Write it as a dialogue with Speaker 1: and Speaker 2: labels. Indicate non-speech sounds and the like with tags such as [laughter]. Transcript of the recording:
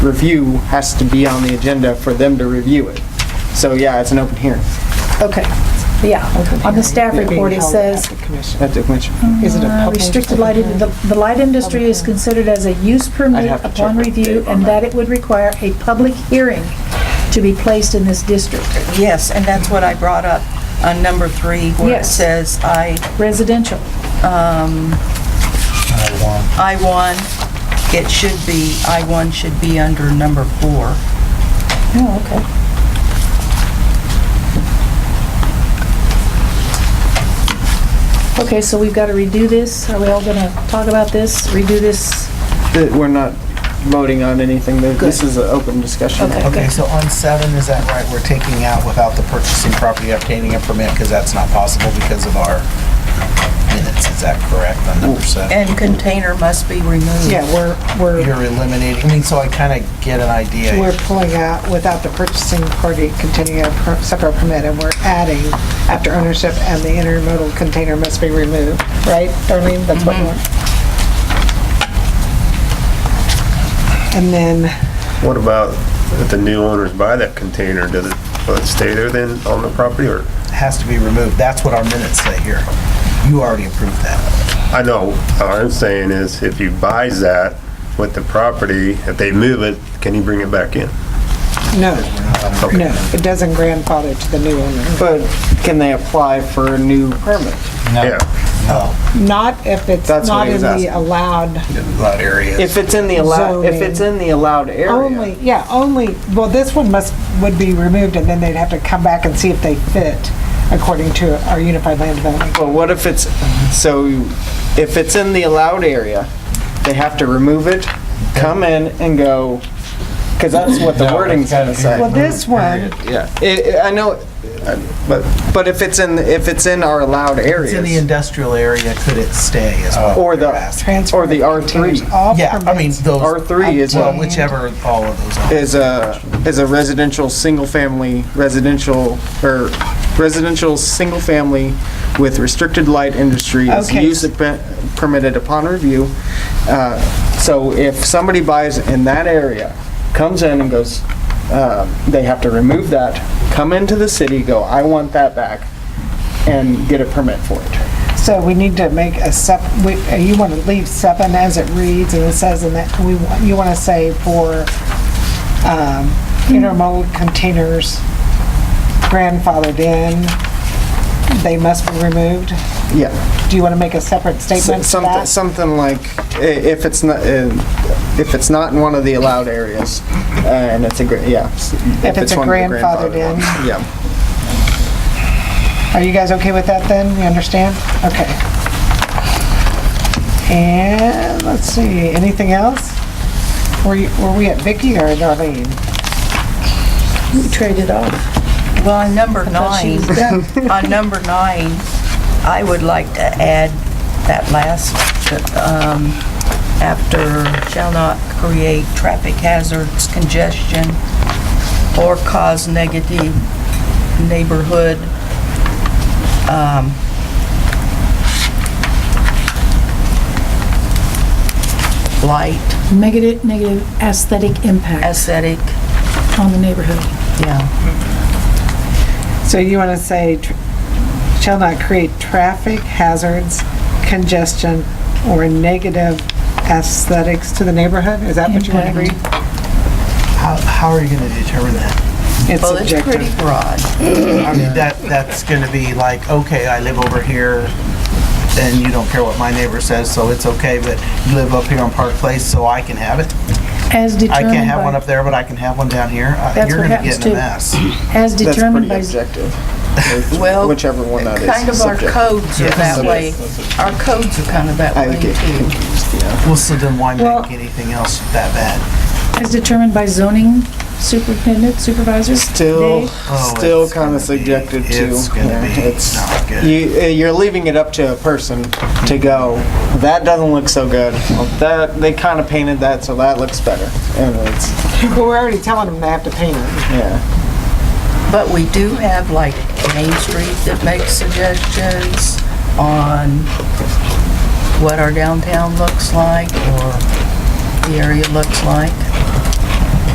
Speaker 1: review has to be on the agenda for them to review it. So yeah, it's an open hearing
Speaker 2: Okay, yeah. On the staff report, it says,
Speaker 1: at the commission.
Speaker 3: Hmm.
Speaker 4: Is it a
Speaker 2: uh,
Speaker 4: public-
Speaker 2: restricted light, the the light industry is considered as a use
Speaker 1: I'd
Speaker 2: permit
Speaker 1: have to
Speaker 2: upon
Speaker 1: check with
Speaker 2: review,
Speaker 1: Dave on
Speaker 2: and
Speaker 1: that.
Speaker 2: that it would require a public hearing to be placed in this district.
Speaker 4: Yes, and that's what I brought up on number three, where it
Speaker 2: Yes.
Speaker 4: says I,
Speaker 2: Residential.
Speaker 4: I-1, it should be, I-1 should be under number four.
Speaker 2: Oh, okay. Okay, so we've got to redo this. Are we all going to talk about this, redo this?
Speaker 1: That We're not voting on anything. That- This is an open discussion.
Speaker 2: Okay.
Speaker 5: Okay, so on seven, is that right? We're taking out without the purchasing property obtaining a permit because that's not possible because of our minutes. Is that correct on number seven?
Speaker 4: And container must be removed.
Speaker 3: Yeah, we're, we're,
Speaker 5: You're eliminating, I mean, so I kind of get an idea.
Speaker 3: we're pulling out without the purchasing party continuing a per- separate permit, and we're adding after ownership and the intermodal container must be removed, right, Darlene? That's what you want. And then,
Speaker 6: What about if the new owners buy that container, does it, will it stay there then on the property or?
Speaker 5: Has to be removed. That's what our minutes say here. You already approved that.
Speaker 6: I know, all I'm saying is if you buys that with the property, if they move it, can you bring it back in?
Speaker 3: no,
Speaker 5: We're not on the-
Speaker 3: no, it doesn't grandfather to the new owner.
Speaker 1: But can they apply for a new permit?
Speaker 6: Yeah.
Speaker 5: No,
Speaker 3: Not if it's
Speaker 1: That's what
Speaker 3: not
Speaker 1: he
Speaker 3: in
Speaker 1: was
Speaker 3: the
Speaker 1: asking.
Speaker 3: allowed,
Speaker 5: allowed areas.
Speaker 1: If it's in the allowed, if it's in the allowed
Speaker 3: only,
Speaker 1: area.
Speaker 3: yeah, only, well, this one must, would be removed, and then they'd have to come back and see if they fit according to our Unified Land Development.
Speaker 1: Well, what if it's, so if it's in the allowed area, they have to remove it, come in and go, because that's what the wording's gonna
Speaker 3: Well,
Speaker 1: say.
Speaker 3: this one,
Speaker 1: Yeah, I, I- I know, uh, but, but if it's in, if it's in our allowed
Speaker 5: It's in the
Speaker 1: areas,
Speaker 5: industrial area, could it stay as well?
Speaker 1: Or the-
Speaker 3: transfer.
Speaker 1: Or the R3.
Speaker 3: containers, all
Speaker 5: Yeah, I mean,
Speaker 3: permits.
Speaker 5: those.
Speaker 1: R3 is
Speaker 5: Well,
Speaker 1: a-
Speaker 5: whichever, all of those. are.
Speaker 1: is a, is a residential, single-family, residential, or residential, single-family with restricted light industry is
Speaker 3: Okay.
Speaker 1: use per- permitted upon review. Uh, So if somebody buys in that area, comes in and goes, uh, they have to remove that, come into the city, go, I want that back, and get a permit for it.
Speaker 3: So we need to make a sep, we- uh, you want to leave seven as it reads, and it says in that, we, want- you want to say for um, intermodal containers grandfathered in, they must be removed.
Speaker 1: Yeah.
Speaker 3: Do you want to make a separate statement to
Speaker 1: Something,
Speaker 3: that?
Speaker 1: something like, i- if it's not, uh, if it's not in one of the allowed areas, uh, and it's a, gra- yeah. s-
Speaker 3: If it's a
Speaker 1: one of the
Speaker 3: grandfathered in.
Speaker 1: ones, Yeah.
Speaker 3: Are you guys okay with that then? You understand? Okay. And, let's see, anything else? Were you, were we at Vicky or Darlene?
Speaker 2: We traded off.
Speaker 4: Well, on number
Speaker 2: thought she
Speaker 4: nine, [laughs] on number nine, I would like to add that last, um, after shall not create traffic hazards, congestion, or cause negative neighborhood, um, light,
Speaker 2: Negative, negative aesthetic impact
Speaker 4: aesthetic,
Speaker 2: on the neighborhood.
Speaker 4: yeah,
Speaker 3: So you want to say, tr- shall not create traffic hazards, congestion, or negative aesthetics to the neighborhood? Is that what you want to read?
Speaker 5: How, how are you going to determine that?
Speaker 3: It's
Speaker 4: well, it's pretty
Speaker 3: subjective.
Speaker 4: broad.
Speaker 5: I mean, that, that's gonna be like, okay, I live over here, and you don't care what my neighbor says, so it's okay, but you live up here on Park Place, so I can have it.
Speaker 2: As
Speaker 5: I
Speaker 2: determined by...
Speaker 5: can't have one up there, but I can have one down here. Uh,
Speaker 2: That's
Speaker 5: You're
Speaker 2: what
Speaker 5: gonna
Speaker 2: happens
Speaker 5: get in a
Speaker 2: too.
Speaker 5: mess.
Speaker 1: That's
Speaker 2: As determined
Speaker 1: pretty
Speaker 2: by...
Speaker 3: [laughs]
Speaker 1: objective.
Speaker 4: Well,
Speaker 1: Whichever one that is.
Speaker 4: Kind of our
Speaker 1: subjective.
Speaker 4: codes are that way. Our codes are kind of that
Speaker 1: I
Speaker 4: way
Speaker 1: get
Speaker 4: too.
Speaker 1: confused, yeah.
Speaker 5: Well, so then why
Speaker 2: Well-
Speaker 5: make anything else that bad?
Speaker 2: As determined by zoning superintendent, supervisor?
Speaker 1: Still,
Speaker 2: Dave?
Speaker 5: Oh,
Speaker 1: still
Speaker 5: it's
Speaker 1: kind
Speaker 5: gonna
Speaker 1: of
Speaker 5: be-
Speaker 1: subjective to.
Speaker 5: it's gonna
Speaker 1: yeah,
Speaker 5: be
Speaker 1: it's-
Speaker 5: not good.
Speaker 1: You, uh, you're leaving it up to a person to go, that doesn't look so good. Well, That, they kind of painted that, so that looks better. And it's,
Speaker 3: But we're already telling them they have to paint it.
Speaker 1: yeah.
Speaker 4: But we do have like Main Street that makes suggestions on what our downtown looks like or the area looks like.